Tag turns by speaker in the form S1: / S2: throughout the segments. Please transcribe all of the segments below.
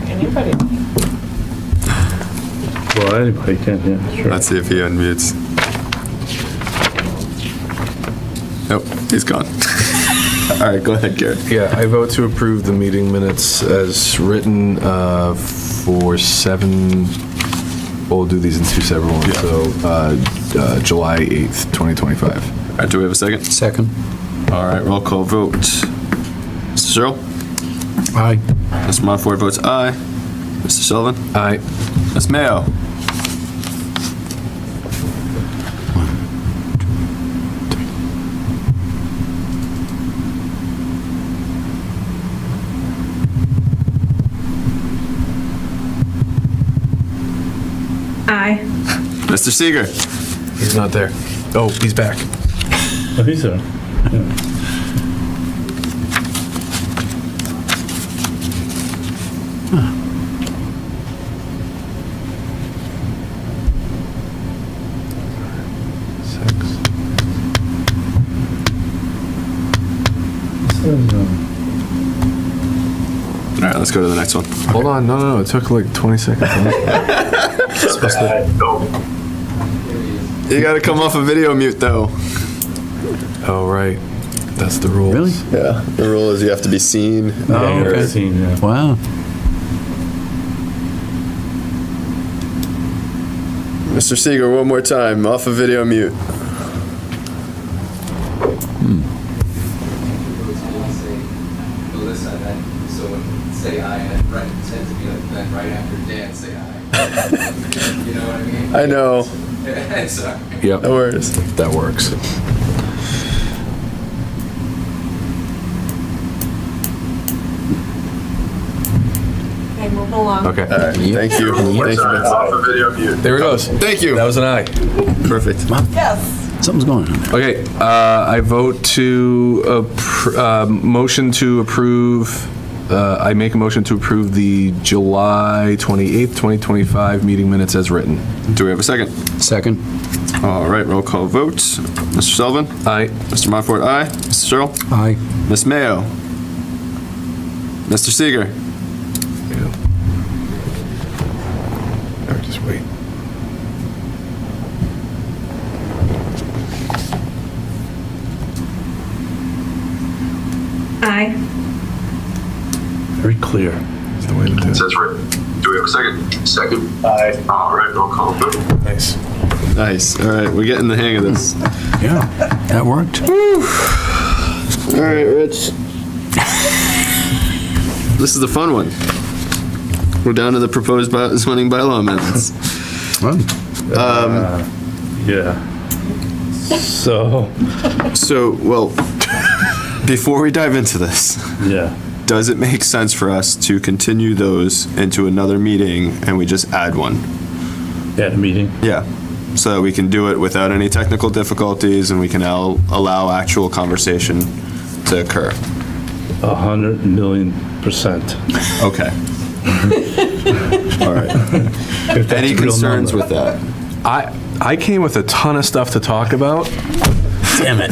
S1: anybody.
S2: Well, anybody can, yeah, sure.
S3: Let's see if he unmutes. Nope, he's gone. All right, go ahead, Garrett.
S4: Yeah, I vote to approve the meeting minutes as written uh, for seven, we'll do these in two separate ones,
S3: Yeah.
S4: so uh, uh, July 8th, 2025.
S3: All right, Uh, do we have a second?
S5: Second.
S3: All right, roll call vote. Mr. Searle?
S5: Aye.
S3: Mr. Montfort votes aye. Mr. Sullivan?
S4: Aye.
S3: Ms. Mayo?
S6: Aye.
S3: Mr. Seeger?
S4: He's not there. Oh, he's back.
S2: Oh, he's there.
S4: Six.
S3: All right, let's go to the next one.
S4: Hold on, no, no, no, it took like 20 seconds.
S3: You gotta come off a video mute, though.
S4: Oh, right, that's the rules.
S5: Really?
S3: Yeah, the rule is you have to be seen.
S2: Yeah,
S5: okay.
S2: you're seen, yeah.
S5: Wow.
S3: Mr. Seeger, one more time, off a video mute.
S7: people will say, Melissa, then, so when, say I, and then right, tends to be like, then right after Dan, say I. You know what I mean?
S3: I know,
S7: Sorry.
S3: no
S4: Yep,
S3: worries.
S4: that works.
S6: Okay, moving along.
S4: Okay,
S3: All right, thank you. Thank you. Vince.
S4: there it goes.
S3: Thank you.
S4: That was an aye.
S3: Perfect.
S1: Yes.
S5: Something's going on there.
S4: Okay, uh, I vote to, appr- uh, motion to approve, uh, I make a motion to approve the July 28th, 2025 meeting minutes as written.
S3: Do we have a second?
S5: Second.
S3: All right, roll call vote. Mr. Sullivan?
S4: Aye.
S3: Mr. Montfort, aye. Mr. Searle?
S5: Aye.
S3: Miss Mayo? Mr. Seeger?
S4: Or just wait.
S6: Aye.
S2: Very clear.
S4: That's the way to do it.
S8: Says Rick. Do we have a second? Second. Aye. All right, roll call vote.
S4: Nice.
S3: Nice. All right, we're getting the hang of this.
S5: Yeah, that worked.
S3: All right, Rich. This is the fun one. We're down to the proposed by- zoning bylaw amendments.
S5: Well,
S2: Yeah. So,
S3: So, well, before we dive into this,
S2: yeah.
S3: does it make sense for us to continue those into another meeting and we just add one?
S2: At a meeting.
S3: Yeah, so that we can do it without any technical difficulties and we can al- allow actual conversation to occur.
S2: A hundred million percent.
S3: Okay. All right.
S2: If that's
S3: Any
S2: a real
S3: concerns
S2: number.
S3: with that?
S4: I, I came with a ton of stuff to talk about.
S5: damn it.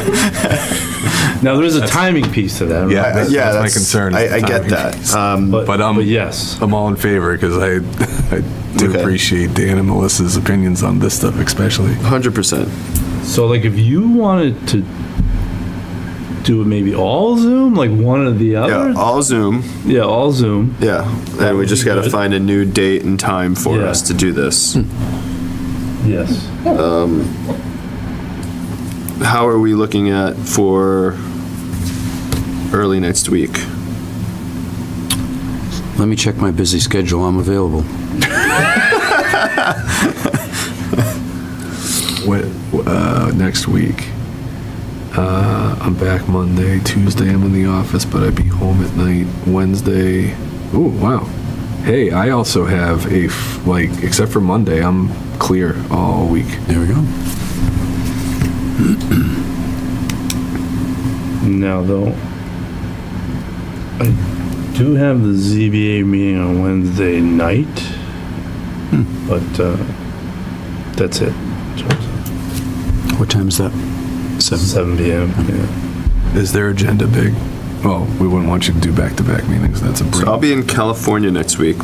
S2: Now, there is a timing piece to that. right?
S4: Yeah. that's- that's my concern, is
S3: Uh, I, I
S4: the
S3: get
S4: timing.
S3: that. Um,
S2: But,
S4: But, um,
S2: but yes.
S4: I'm all in favor because I, I do
S3: Okay.
S4: appreciate Dan and Melissa's opinions on this stuff especially.
S3: 100%.
S2: So like if you wanted to do it maybe all Zoom, like one or the other?
S3: Yeah, all Zoom.
S2: Yeah, all Zoom.
S3: Yeah. And we just got to
S2: Good.
S3: find a new date and time for
S2: Yeah.
S3: us to do this.
S2: Yes.
S3: How are we looking at for early next week?
S5: Let me check my busy schedule. I'm available.
S4: What, uh, next week. Uh, I'm back Monday, Tuesday I'm in the office, but I'd be home at night. Wednesday, oh, wow. Hey, I also have a, f- like, except for Monday, I'm clear all week.
S5: There we go.
S2: Now though, I do have the ZBA meeting on Wednesday night, but uh, that's it.
S5: What time is that? Seven.
S2: 7 p.m. Yeah.
S4: Is their agenda big? Well, we wouldn't want you to do back-to-back meetings, that's a break.
S3: So I'll be in California next week.